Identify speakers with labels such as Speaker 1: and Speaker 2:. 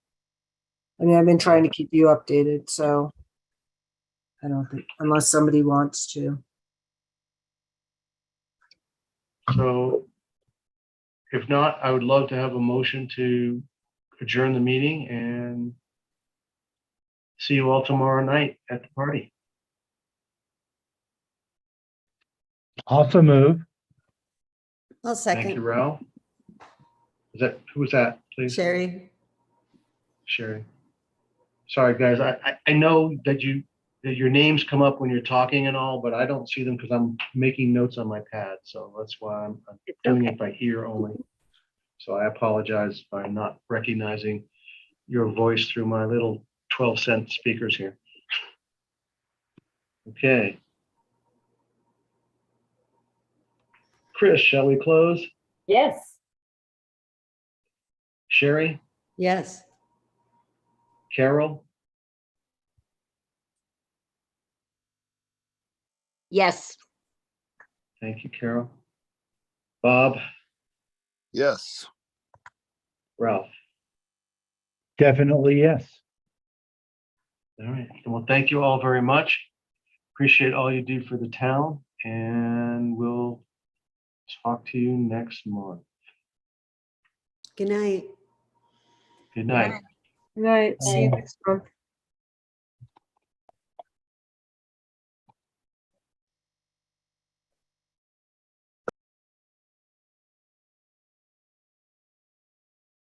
Speaker 1: I mean, I've been trying to keep you updated, so I don't think, unless somebody wants to.
Speaker 2: So if not, I would love to have a motion to adjourn the meeting and see you all tomorrow night at the party.
Speaker 3: Also move.
Speaker 4: I'll
Speaker 2: Thank you,
Speaker 4: second.
Speaker 2: Ralph. Is that, who was that, please?
Speaker 4: Sherry,
Speaker 2: Sherry. Sorry, guys, I, I, I know that you, that your names come up when you're talking and all, but I don't see them because I'm making notes on my pad, so that's why I'm I'm doing it by ear only. So I apologize by not recognizing your voice through my little twelve cent speakers here. Okay. Chris, shall we close?
Speaker 5: Yes.
Speaker 2: Sherry,
Speaker 4: yes.
Speaker 2: Carol,
Speaker 5: Yes.
Speaker 2: thank you, Carol. Bob,
Speaker 6: Yes.
Speaker 2: Ralph.
Speaker 3: Definitely yes.
Speaker 2: All right. Well, thank you all very much. Appreciate all you do for the town and we'll talk to you next month.
Speaker 4: Good night.
Speaker 2: Good night.
Speaker 1: Good night. See you
Speaker 3: Bye.
Speaker 1: next month.